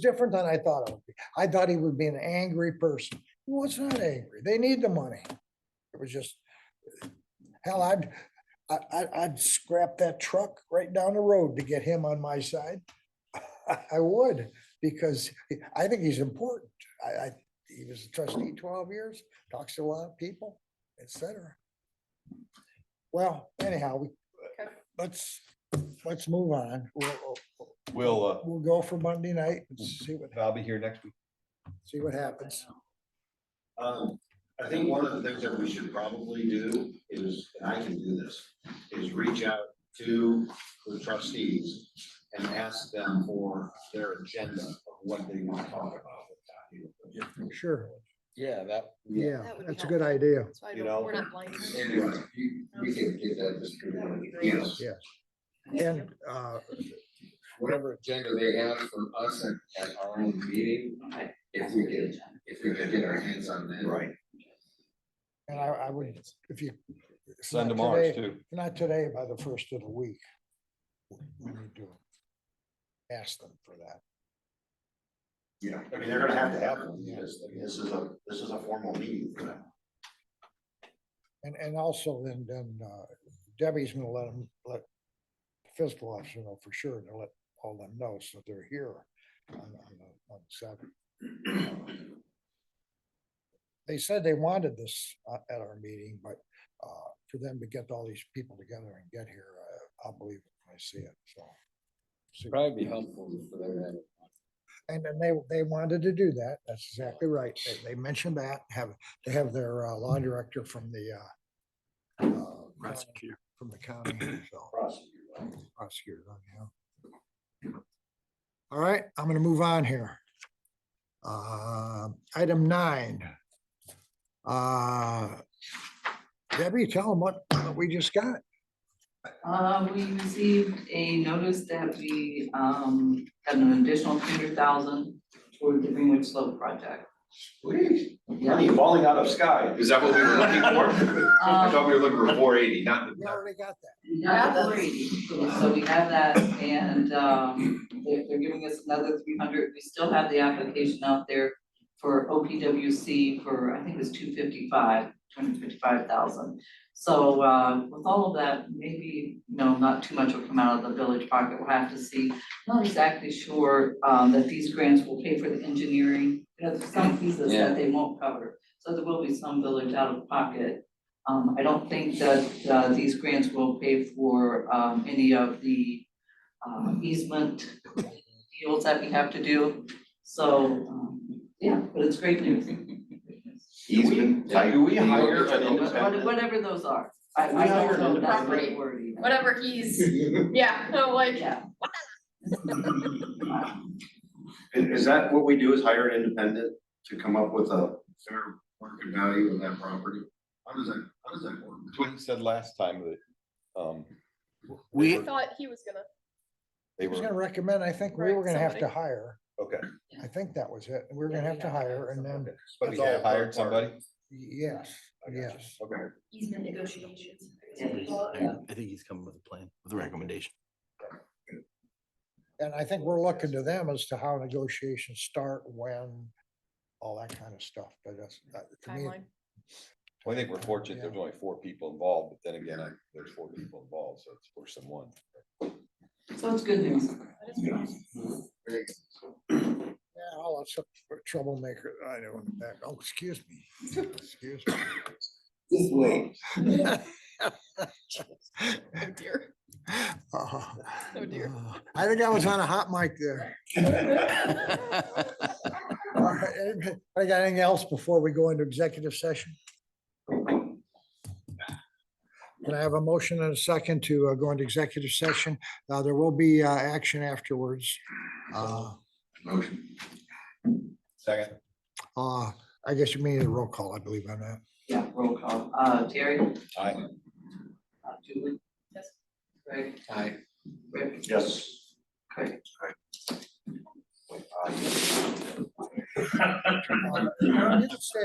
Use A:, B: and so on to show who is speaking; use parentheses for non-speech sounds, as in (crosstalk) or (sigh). A: different than I thought it would be. I thought he would be an angry person. He was not angry. They need the money. It was just, hell, I'd, I, I, I'd scrap that truck right down the road to get him on my side. (laughs) I would, because I think he's important. I, I, he was a trustee twelve years, talks to a lot of people, et cetera. Well, anyhow, we,
B: Okay.
A: let's, let's move on. We'll,
C: We'll, uh,
A: we'll go for Monday night and see what
C: I'll be here next week.
A: see what happens.
D: Um, I think one of the things that we should probably do is, and I can do this, is reach out to the trustees and ask them for their agenda of what they want to talk about.
A: Sure,
D: Yeah, that.
A: yeah,
B: That would be
A: that's a
B: helpful.
A: good idea.
B: So I don't,
C: You know?
B: we're not blind. to
E: (laughs)
B: it.
D: Anyway, you, we can get that distributed, yes,
A: Yes. And, uh,
D: whatever agenda they have from us at, at our own meeting, if we can, if we can get our hands on that. Right.
A: and I, I would, if you. if
C: Send
A: not
C: them ours
A: today-
C: too.
A: if Not today, by the first of the week. We need to ask them for that.
D: Yeah, I mean, they're gonna have to have one, because this is a, this is a formal meeting for them.
A: And, and also then, then uh, Debbie's gonna let them, let the fiscal officer know for sure, and let all them know so they're here on, on, the- on seven. They said they wanted this uh, at our meeting, but, uh, for them to get all these people together and get here, uh, I'll believe it when I see it, so. See-
D: Probably be helpful for them.
A: And then they, they wanted to do that. That's exactly right. They, they mentioned that, have, to have their uh, law director from the, uh, uh,
F: Prosecutor.
A: From the county, so prosecutor, yeah. All right, I'm gonna move on here. Uh, item nine. Uh, Debbie, tell them what, what we just got.
G: Uh, we received a notice that we, um, had an additional two hundred thousand toward the Greenwood Slope project.
D: Please,
G: Yeah,
D: money falling out of sky. Is that what we were looking
G: Um,
D: for? I thought we were looking for four eighty, not.
A: We already got that.
G: yeah, the 480. so we have that, and, um, they're, they're giving us another three hundred, we still have the application out there for OPWC for, I think it was two fifty-five, two hundred fifty-five thousand. So, uh, with all of that, maybe, you know, not too much will come out of the village pocket, we'll have to see. Not exactly sure, um, that these grants will pay for the engineering, you know, there's some pieces that they won't cover, so there will be some village out of pocket. Um, I don't think that, uh, these grants will pay for, um, any of the, um, easement deals that we have to do. So, um, yeah, but it's great news.
D: Easement. Do we hire an
G: What-
D: independent?
G: Whatever those are. I,
D: We
G: I
D: hired
G: don't know
D: an
G: that's the right
B: independent-
G: word even.
B: Whatever he's, yeah, (laughs) no, like,
G: Yeah.
D: Is, is that what we do is hire an independent to come up with a fair market value of that property? How does that, how does that work?
C: That's what he said last time that, um,
B: I
F: We,
B: thought he was gonna,
C: they
A: I was gonna
C: were,
A: recommend, I think we
B: Right,
A: were gonna have to
B: somebody.
A: hire.
C: okay.
A: I think that was it. We We're
G: Yeah,
A: gonna
G: we
A: have to
G: gotta hire
A: hire and then,
G: somebody.
C: But
D: That's
C: he
D: all
C: had hired
D: third party.
C: somebody?
A: yes,
C: I got you.
A: yes.
D: Okay.
E: easement negotiations.
G: Yeah.
F: I think he's coming with a plan, with a recommendation.
A: And I think we're looking to them as to how negotiations start, when, all that kind of stuff, but that's, that, to me,
B: timeline.
C: Well, I think we're fortunate, there's
A: Yeah.
C: only four people involved, but then again, I- there's four people involved, so it's worse than one.
G: So it's good news.
B: That is pretty awesome.
A: yeah, all that's a troublemaker, I know, in the back, oh, excuse me, excuse
B: (laughs)
A: me.
D: This way.
B: (laughs) Oh dear.
A: Oh,
B: Oh, dear.
A: I think I was on a hot mic there. All right, (laughs) anybody- I got anything else before we go into executive session? Can I have a motion and a second to uh, go into executive session? Uh, there will be, uh, action afterwards. Uh,
D: Motion.
C: Second,
A: uh, I guess you mean a roll call, I believe on that.
G: Yeah, roll call. Uh, Terry, uh,
C: aye.
G: Julie,
B: Yes.
G: Greg,
D: Aye.
G: Rick.
D: Yes.
G: Great.
D: Aye.
A: Uh, you can say